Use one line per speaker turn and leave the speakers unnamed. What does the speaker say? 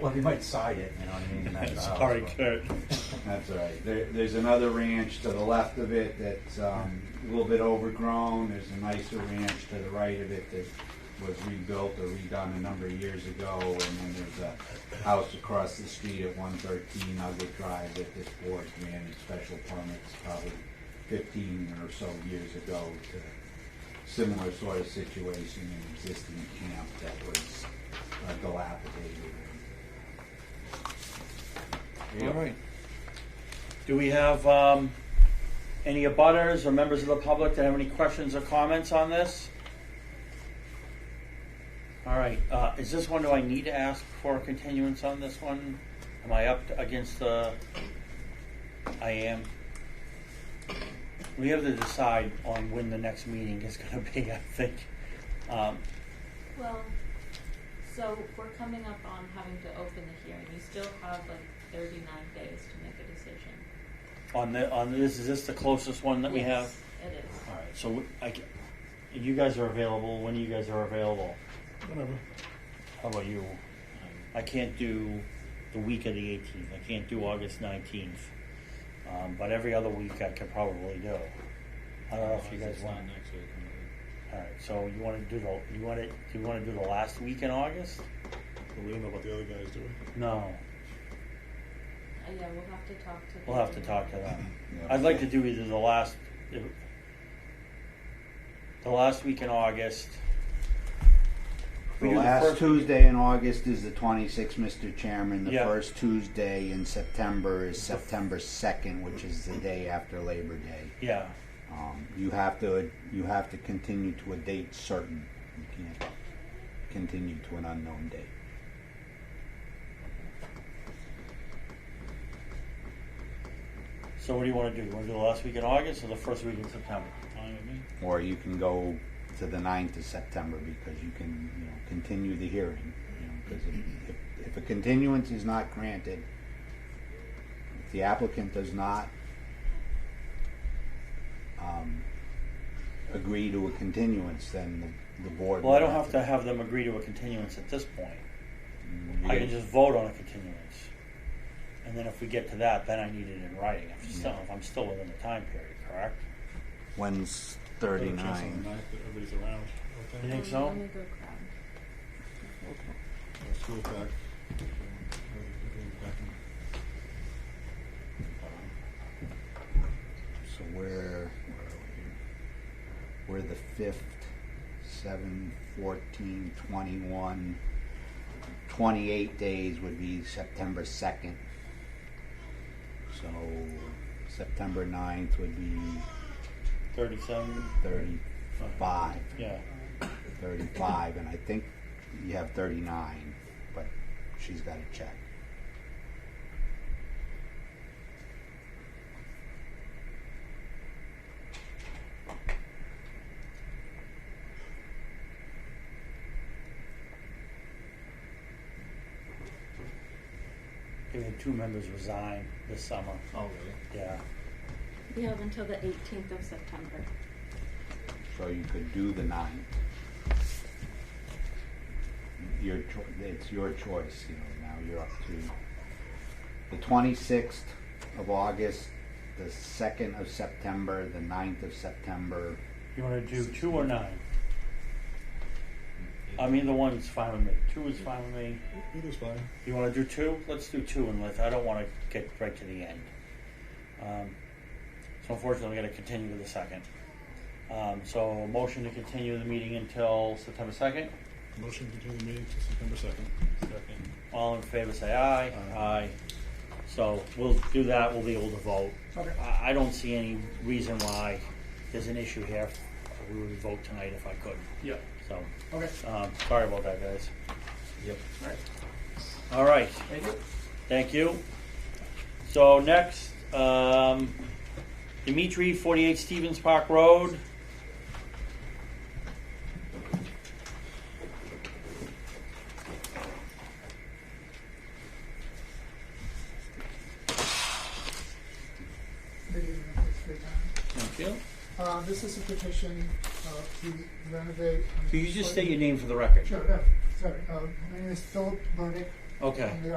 Well, he might side it, you know what I mean? oh, that's out,
Sorry,
but-
Kurt.
That's all right. There, there's another ranch to the left of it that's um, a little bit overgrown. There's a nicer ranch to the right of it that was rebuilt or redone a number of years ago. And then there's a house across the street at 113 Nugget Drive that this board granted special permits probably 15 or so years ago to similar sort of situation, an existing camp that was uh, dilapidated.
All right. Do we have um, any abutters or members of the public that have any questions or comments on this? All right, uh, is this one, do I need to ask for a continuance on this one? Am I up against the, I am. We have to decide on when the next meeting is gonna be, I think. Um,
Well, so we're coming up on having to open the hearing. You still have like thirty-nine days to make a decision.
On the, on this, is this the closest one that we have?
Yes, It is.
All right, so we- I, ca- you guys are available, when you guys are available?
Whatever.
How about you? I can't do the week of the eighteenth, I can't do August nineteenth, um, but every other week I could probably do. I don't know if you guys want,
next week.
all right, so you wanna do the, you wanna, do you wanna do the last week in August?
But we don't know about the other guys, do we?
No,
Uh, yeah, we'll have to talk to. Um,
we'll have to talk to them.
Yeah.
I'd like to do either the last, the last week in August.
The
We do the
last
first-
Tuesday in August is the 26th, Mr. Chairman. The
Yeah.
first Tuesday in September is September 2nd, which is the day after Labor Day.
Yeah,
Um, you have to you have to continue to a date certain. You can't continue to an unknown date.
so what do you wanna do, you wanna do the last week in August or the first week in September?
Or you can go to the 9th of September because you can you know, continue the hearing. Because you know, 'cause if, if, if a continuance is not granted, if the applicant does not um, agree to a continuance, then the, the board.
Well, I don't
will
have to have them agree to a continuance at this point.
Mm,
I can just vote on a continuance. And then if we get to that, then I need it in writing. If still, if I'm still within the time period, correct?
When's
Better chance on the
39?
ninth that everybody's around.
You
Okay.
think so?
Let me go grab.
School back.
So we're, where are we here? We're the fifth, seven, fourteen, twenty-one, twenty-eight days would be September second. So September ninth would be
Thirty-seven?
thirty-five,
Yeah.
thirty-five, and I think you have thirty-nine, but she's gotta check.
We had two members resign this summer.
Oh, really?
Yeah.
We have until the eighteenth of September.
So you could do the nine. Your cho- it's your choice, you know, now you're up to the twenty-sixth of August, the second of September, the 9th of September.
You wanna do two or nine? I mean, the one's fine with me. Two is fine with me.
Either's fine.
You wanna do two? Let's do two and let, I don't wanna get right to the end. Um, so unfortunately, we gotta continue to the second. Um, so motion to continue the meeting until September second?
Motion to continue the meeting to September second. Second.
All in favor, say aye.
Aye.
So we'll do that, we'll be able to vote.
Okay.
I, I don't see any reason why there's an issue here. We would vote tonight if I could,
Yeah.
so,
Okay.
um, sorry about that, guys.
Yep. All right.
All right,
Thank you.
thank you. So next, um, Dimitri, forty-eight Stevens Park Road.
Good evening, thanks for your time.
Thank you.
Uh, this is a petition, uh, to renovate.
Could you just state your name for the record?
Sure, yeah, sorry, uh, my name is Philip Burdick,
Okay.
I'm the